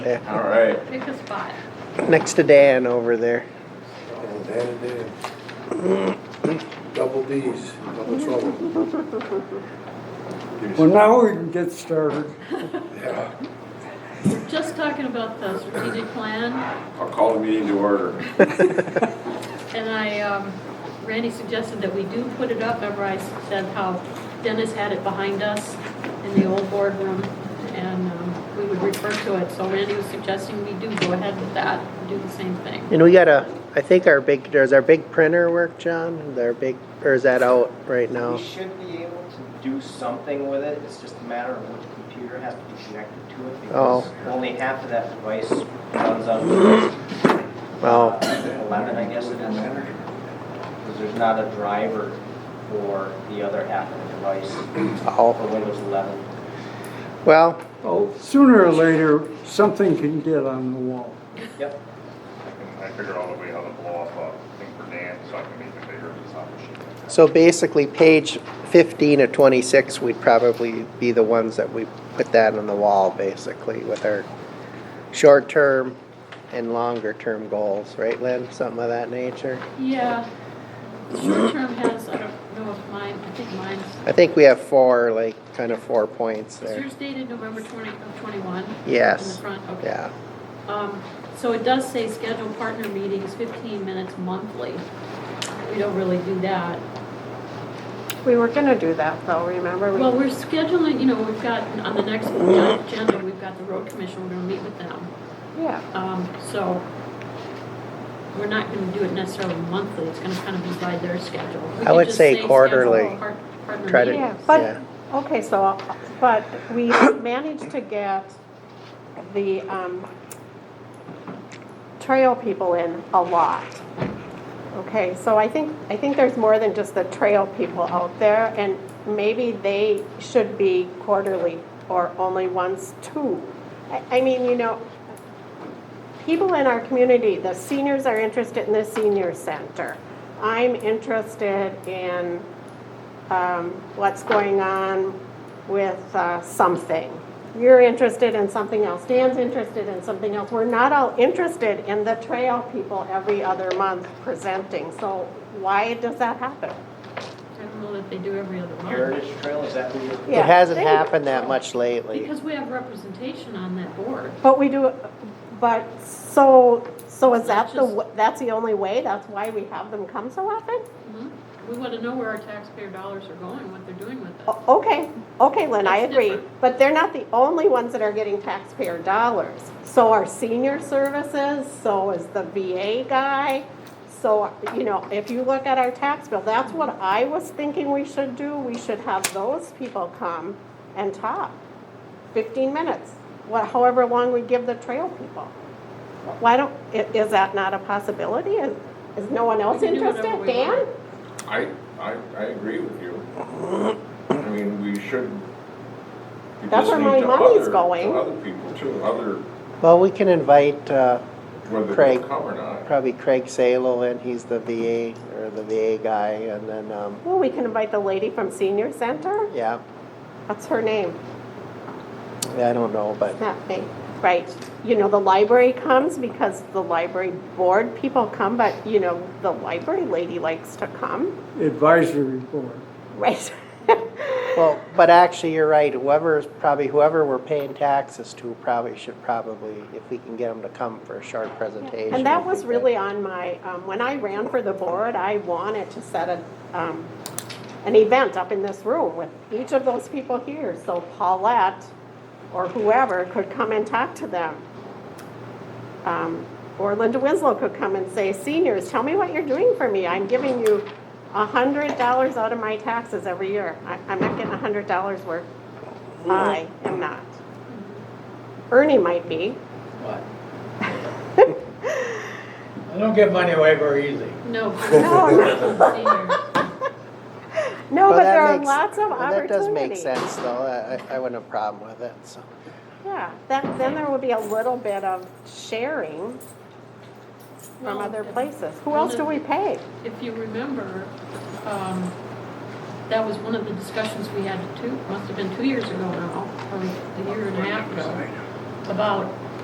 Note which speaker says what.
Speaker 1: Yeah,
Speaker 2: All right.
Speaker 3: Pick a spot.
Speaker 1: Next to Dan over there.
Speaker 4: And then it did. Double Ds, double trouble.
Speaker 5: Well, now we can get started.
Speaker 4: Yeah.
Speaker 3: We're just talking about the strategic plan,
Speaker 2: I'll call the meeting to order.
Speaker 3: and I, um, Randy suggested that we do put it up. Remember I said how Dennis had it behind us in the old boardroom, and um, we would refer to it. So Randy was suggesting we do go ahead with that, and do the same thing.
Speaker 1: And we got a, I think our big, does our big printer work, John? Our big, or is that out right now?
Speaker 6: We should be able to do something with it, it's just a matter of which computer has to be connected to it, because only half of that device runs on Windows
Speaker 1: Oh,
Speaker 6: uh, eleven, I guess, it is. Because there's not a driver for the other half of the device, for
Speaker 1: oh.
Speaker 6: Windows eleven.
Speaker 1: Well,
Speaker 5: Oh, sooner or later, something can get on the wall.
Speaker 6: Yep,
Speaker 7: I figure out a way how to blow off a thing for Dan, so I can make it bigger, it's not machine.
Speaker 1: so basically page fifteen to twenty-six, we'd probably be the ones that we put that on the wall, basically, with our short-term and longer-term goals, right, Lynn? Something of that nature?
Speaker 3: Yeah. Short term has, I don't know if mine, I think mine's,
Speaker 1: I think we have four, like, kind of four points
Speaker 3: is
Speaker 1: there.
Speaker 3: yours dated November twenty, of twenty-one? In
Speaker 1: Yes.
Speaker 3: the front, okay.
Speaker 1: Yeah,
Speaker 3: Um, So it does say schedule partner meetings 15 minutes monthly. We don't really do that.
Speaker 8: We were gonna do that though, remember? We-
Speaker 3: Well, we're scheduling, you know, we've got, on the next agenda, we've got the road commission, we're gonna meet with them.
Speaker 8: Yeah,
Speaker 3: Um, So we're not gonna do it necessarily monthly, it's gonna kind of be by their schedule. We
Speaker 1: I
Speaker 3: could
Speaker 1: would
Speaker 3: just
Speaker 1: say
Speaker 3: schedule
Speaker 1: quarterly.
Speaker 3: par- partner
Speaker 1: Try to-
Speaker 8: yeah,
Speaker 3: meetings.
Speaker 1: Yeah.
Speaker 8: but, okay, so, but we managed to get the, um, trail people in a lot. Okay, so I think, I think there's more than just the trail people out there and maybe they should be quarterly or only once too. I, I mean, you know, people in our community, the seniors are interested in the senior center. I'm interested in um, what's going on with uh, something. You're interested in something else. Dan's interested in something else. We're not all interested in the trail people every other month presenting. So why does that happen?
Speaker 3: I don't know that they do every other month.
Speaker 6: Heritage Trail, is that who you're?
Speaker 1: it
Speaker 8: Yeah,
Speaker 1: hasn't
Speaker 8: thank you.
Speaker 1: happened that much lately.
Speaker 3: Because we have representation on that board.
Speaker 8: But we do, but so, so is that the,
Speaker 3: Just-
Speaker 8: w- that's the only way? That's why we have them come so often?
Speaker 3: Mhm. We wanna know where our taxpayer dollars are going, what they're doing with it.
Speaker 1: Oh.
Speaker 8: O- Okay, okay, Lynn, I
Speaker 3: That's
Speaker 8: agree,
Speaker 3: different.
Speaker 8: but they're not the only ones that are getting taxpayer dollars. So are senior services, so is the VA guy, so, you know, if you look at our tax bill, that's what I was thinking we should do, we should have those people come and talk. Fifteen minutes, wha- however long we give the trail people. Why don't, i- is that not a possibility? Is, is no one else
Speaker 3: We can do whatever
Speaker 8: interested?
Speaker 3: we want.
Speaker 8: Dan?
Speaker 2: I, I, I agree with you. I mean, we should be
Speaker 8: That's where my
Speaker 2: listening to
Speaker 8: money's
Speaker 2: other,
Speaker 8: going.
Speaker 2: to other people too, other,
Speaker 1: Well, we can invite, uh,
Speaker 2: whether they
Speaker 1: Craig.
Speaker 2: come or not.
Speaker 1: probably Craig Salo in, he's the VA, or the VA guy, and then, um,
Speaker 8: Well, we can invite the lady from senior center,
Speaker 1: yeah,
Speaker 8: what's her name?
Speaker 1: I don't know, but,
Speaker 8: Not me, right. You know, the library comes because the library board people come, but, you know, the library lady likes to come,
Speaker 5: Advisory board.
Speaker 8: right?
Speaker 1: well, but actually, you're right, whoever's, probably whoever we're paying taxes to probably should probably, if we can get them to come for a short presentation.
Speaker 8: And that
Speaker 1: I
Speaker 8: was
Speaker 1: think
Speaker 8: really on my, um, when I ran for the board, I wanted to set a, um, an event up in this room with each of those people here, so Paulette or whoever could come and talk to them. Um, or Linda Winslow could come and say, seniors, tell me what you're doing for me, I'm giving you a hundred dollars out of my taxes every year, I, I'm not getting a hundred dollars worth. I am not. Ernie might be,
Speaker 9: What? I don't give money away very easy.
Speaker 3: No.
Speaker 8: No.
Speaker 3: Seniors.
Speaker 8: No,
Speaker 1: Well,
Speaker 8: but
Speaker 1: that
Speaker 8: there are
Speaker 1: makes-
Speaker 8: lots of
Speaker 1: well, That
Speaker 8: opportunities.
Speaker 1: does make sense, though, I, I- I wouldn't have a problem with it, so.
Speaker 8: Yeah, that, then there would be a little bit of sharing from
Speaker 3: Well,
Speaker 8: other
Speaker 3: if-
Speaker 8: places. Who
Speaker 3: one
Speaker 8: else do
Speaker 3: of-
Speaker 8: we pay?
Speaker 3: If you remember, um, that was one of the discussions we had two, must have been two years ago now, or a year and a half ago, about